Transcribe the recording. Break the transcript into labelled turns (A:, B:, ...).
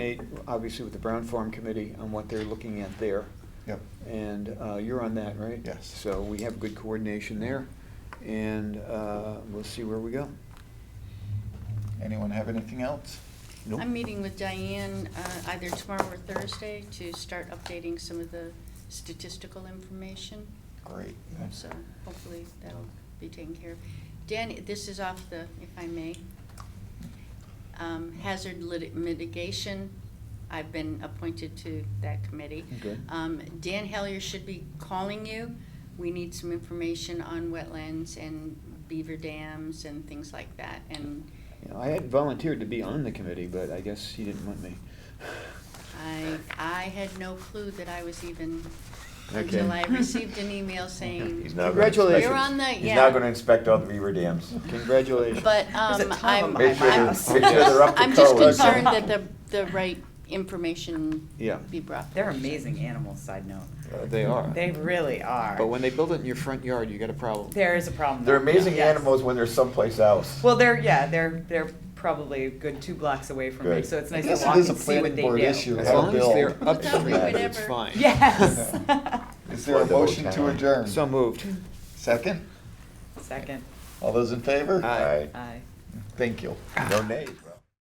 A: coordinate, obviously, with the Brown Farm Committee on what they're looking at there.
B: Yep.
A: And uh, you're on that, right?
B: Yes.
A: So we have good coordination there, and uh, we'll see where we go.
B: Anyone have anything else?
A: Nope.
C: I'm meeting with Diane uh, either tomorrow or Thursday to start updating some of the statistical information.
B: Great.
C: So hopefully that'll be taken care of. Dan, this is off the, if I may, um, hazard lit- mitigation. I've been appointed to that committee.
A: Okay.
C: Um, Dan Hellier should be calling you. We need some information on wetlands and beaver dams and things like that. And
A: You know, I had volunteered to be on the committee, but I guess he didn't want me.
C: I, I had no clue that I was even,
D: Okay.
C: until I received an email saying,
D: He's now gonna inspect
A: Congratulations.
D: it.
C: You're on the-
D: He's
C: yeah.
D: now gonna inspect all the beaver dams.
A: Congratulations.
C: but, um, I'm,
D: Make sure
C: I'm,
D: they're, make sure they're up to code.
C: I'm just
A: colors.
C: concerned that the, the right information
A: Yeah.
C: be brought.
E: They're amazing animals, side note.
A: Uh, They are.
E: They really are.
A: But when they build it in your front yard, you got a problem.
E: There is a problem.
D: They're
E: though.
D: amazing
E: Yes.
D: animals when they're someplace else.
E: Well, they're, yeah, they're, they're probably a good two blocks away from me,
D: Good.
E: so it's
B: I
E: nice
B: guess
E: to
B: it
E: walk
B: is
E: and
B: a
E: see what
B: planning
E: they
B: board
E: do.
B: issue.
A: As
B: How
A: long as
B: built.
A: they're
D: Without
A: upstream of it, it's
C: whatever.
A: fine.
E: Yes.
B: Is there a
D: Flood the whole
B: motion to
D: town.
B: adjourn?
A: So moved.
B: Second?
E: Second,
B: All those in favor?
A: Aye.
D: Aye.
E: aye.
B: Thank you.
D: No nays, right?